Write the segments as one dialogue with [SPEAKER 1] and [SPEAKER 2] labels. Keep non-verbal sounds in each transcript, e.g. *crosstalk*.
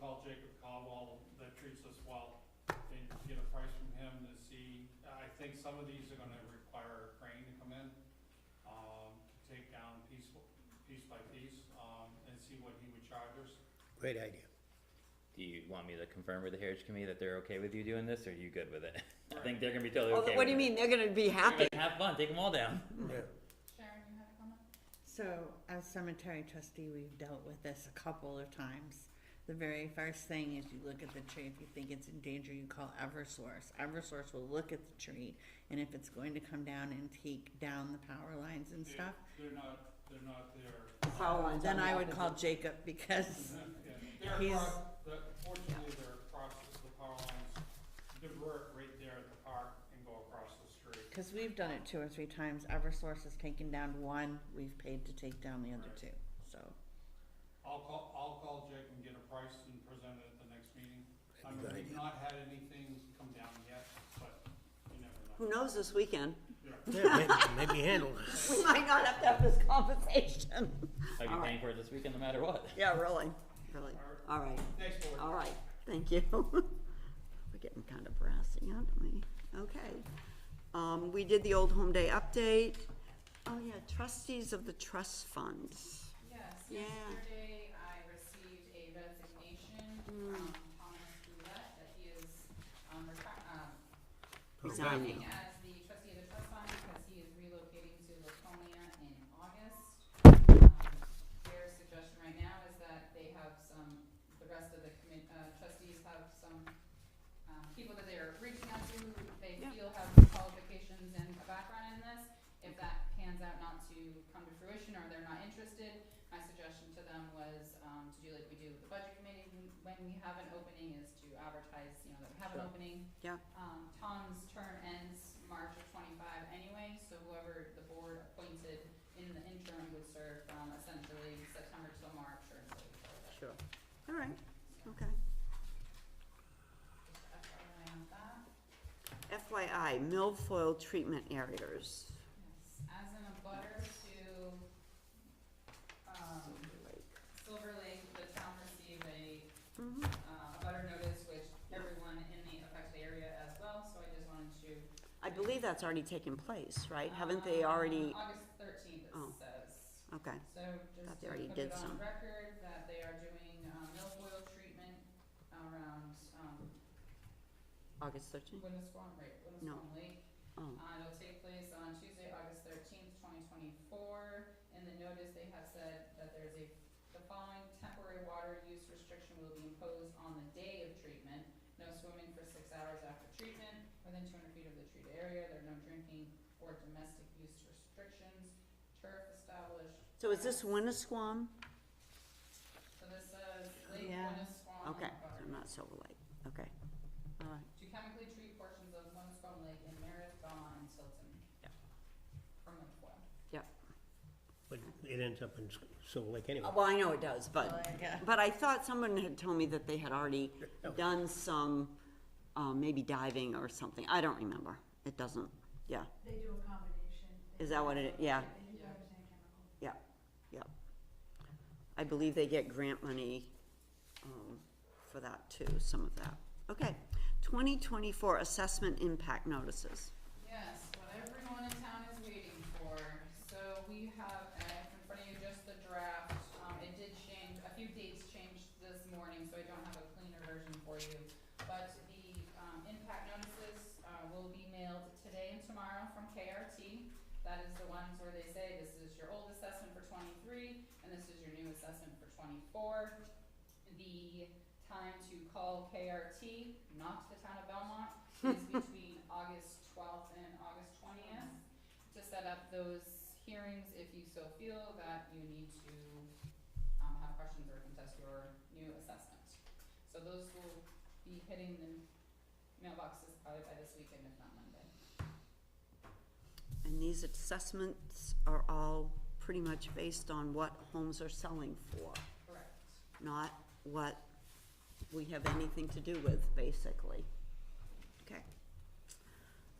[SPEAKER 1] call Jacob Caldwell that treats us well and get a price from him to see, I think some of these are gonna require a crane to come in, um, to take down piece, piece by piece, um, and see what he would charge us.
[SPEAKER 2] Great idea.
[SPEAKER 3] Do you want me to confirm with the Heritage Committee that they're okay with you doing this, or are you good with it? *laughs* I think they're gonna be totally
[SPEAKER 4] Oh,
[SPEAKER 3] okay.
[SPEAKER 4] what do
[SPEAKER 3] with it.
[SPEAKER 4] you mean? They're gonna be
[SPEAKER 3] They're
[SPEAKER 4] happy.
[SPEAKER 3] gonna Have fun, take them all down.
[SPEAKER 2] Yeah.
[SPEAKER 5] Sharon, you had a comment?
[SPEAKER 6] So, as cemetery trustee, we've dealt with this a couple of times. The very first thing is you look at the tree, if you think it's in danger, you call Eversource. Eversource will look at the tree, and if it's going to come down and take down the power lines and
[SPEAKER 1] They-
[SPEAKER 6] stuff,
[SPEAKER 1] They're not, they're not there.
[SPEAKER 4] Power lines
[SPEAKER 6] then
[SPEAKER 4] on the
[SPEAKER 6] I would call
[SPEAKER 4] opposite.
[SPEAKER 6] Jacob because
[SPEAKER 1] Yeah, They're
[SPEAKER 6] He's-
[SPEAKER 1] across, the, fortunately, they're across the power lines, divert right there at the park and go across the street.
[SPEAKER 6] Because we've done it two or three times, Eversource has taken down one, we've paid to take down the other
[SPEAKER 1] Right.
[SPEAKER 6] two, so.
[SPEAKER 1] I'll call, I'll call Jake and get a price and present it at the next meeting. I mean,
[SPEAKER 2] That'd be
[SPEAKER 1] we've
[SPEAKER 2] good.
[SPEAKER 1] not had anything come down yet, but you never know.
[SPEAKER 4] Who knows this weekend? *laughs*
[SPEAKER 1] Yeah.
[SPEAKER 2] Yeah, maybe, maybe handle it.
[SPEAKER 4] We might not have to have this conversation.
[SPEAKER 3] I'd be
[SPEAKER 4] All right.
[SPEAKER 3] paying for it this weekend no matter what.
[SPEAKER 4] Yeah, really, really. All right,
[SPEAKER 1] Next board.
[SPEAKER 4] Hmm. all right, thank you. *laughs* We're getting kind of brassy, aren't we? Okay. Um, we did the Old Home Day update. Oh, yeah, trustees of the trust funds.
[SPEAKER 5] Yes,
[SPEAKER 4] Yeah.
[SPEAKER 5] yesterday I received a resignation
[SPEAKER 4] Mm.
[SPEAKER 5] from Thomas Goulet, that he is, um, retri- um,
[SPEAKER 4] Resigning.
[SPEAKER 5] acting as the trustee of the trust fund because he is relocating to Laconia in August. Um, Their suggestion right now is that they have some, the rest of the commit, uh, trustees have some, um, people that they're reaching out to, who they
[SPEAKER 4] Yeah.
[SPEAKER 5] feel have qualifications and a background in this. If that pans out not to come to fruition or they're not interested, my suggestion to them was, um, to do like we do with the budget committee, when- when we have an opening is to advertise, you know, that we have an opening,
[SPEAKER 4] Yeah,
[SPEAKER 5] um, Tom's term ends March of twenty-five anyway, so whoever the board appointed in the interim would serve from essentially September till March or until we fill it.
[SPEAKER 4] sure. All right, okay.
[SPEAKER 5] Just FYI on that.
[SPEAKER 4] FYI, milfoil treatment areas.
[SPEAKER 5] Yes, as in a butter to, um, Silver Lake, the town received a,
[SPEAKER 4] Mhm.
[SPEAKER 5] uh, a butter notice, which everyone in the affected area as well, so I just wanted to.
[SPEAKER 4] I believe that's already taken place, right? Haven't they already,
[SPEAKER 5] Um, August thirteenth,
[SPEAKER 4] Oh.
[SPEAKER 5] it says.
[SPEAKER 4] okay.
[SPEAKER 5] So
[SPEAKER 4] Thought
[SPEAKER 5] just
[SPEAKER 4] they
[SPEAKER 5] to
[SPEAKER 4] already
[SPEAKER 5] put
[SPEAKER 4] did
[SPEAKER 5] it on
[SPEAKER 4] some.
[SPEAKER 5] record that they are doing um, milfoil treatment around um,
[SPEAKER 4] August thirteenth?
[SPEAKER 5] Winnisquam, right,
[SPEAKER 4] No.
[SPEAKER 5] Winnisquam Lake.
[SPEAKER 4] Oh,
[SPEAKER 5] Uh, it'll take place on Tuesday, August thirteenth, twenty twenty-four. In the notice, they have said that there's a, the following temporary water use restriction will be imposed on the day of treatment. No swimming for six hours after treatment, within two hundred feet of the treated area, there are no drinking or domestic use restrictions. Turf established.
[SPEAKER 4] so is this Winnisquam?
[SPEAKER 5] So this says Lake
[SPEAKER 6] Yeah.
[SPEAKER 5] Winnisquam
[SPEAKER 4] Okay,
[SPEAKER 5] Harbor.
[SPEAKER 4] so not Silver Lake, okay. All right,
[SPEAKER 5] To chemically treat portions of Winnisquam Lake in Meredith, Belmont, and Tilton.
[SPEAKER 4] Yeah.
[SPEAKER 5] From Winnisquam.
[SPEAKER 2] But it ends up in Silver Lake anyway.
[SPEAKER 4] Uh, well, I know it does, but,
[SPEAKER 6] yeah.
[SPEAKER 4] but I thought someone had told me that they had already
[SPEAKER 2] No.
[SPEAKER 4] done some, um, maybe diving or something, I don't remember. It doesn't, yeah,
[SPEAKER 7] They do a combination.
[SPEAKER 4] Is that what it- yeah.
[SPEAKER 7] They do divers and chemical.
[SPEAKER 4] yeah, yeah. I believe they get grant money, um, for that too, some of that. Okay, twenty twenty-four assessment impact notices.
[SPEAKER 5] Yes, what everyone in town is waiting for. So we have, I have in front of you just the draft. Um, it did change, a few dates changed this morning, so I don't have a cleaner version for you. But the, um, impact notices, uh, will be mailed today and tomorrow from KRT. That is the ones where they say this is your old assessment for twenty-three and this is your new assessment for twenty-four. The time to call KRT, not the town of Belmont, is between August twelfth and August twentieth to set up those hearings if you so feel that you need to, um, have questions or contest your new assessment. So those will be hitting the mailboxes probably by this weekend, if not Monday.
[SPEAKER 4] And these assessments are all pretty much based on what homes are selling for,
[SPEAKER 5] Correct.
[SPEAKER 4] not what we have anything to do with, basically. Okay.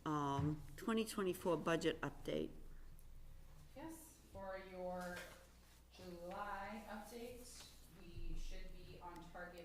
[SPEAKER 4] Um, twenty twenty-four budget update.
[SPEAKER 5] Yes, for your July update, we should be on target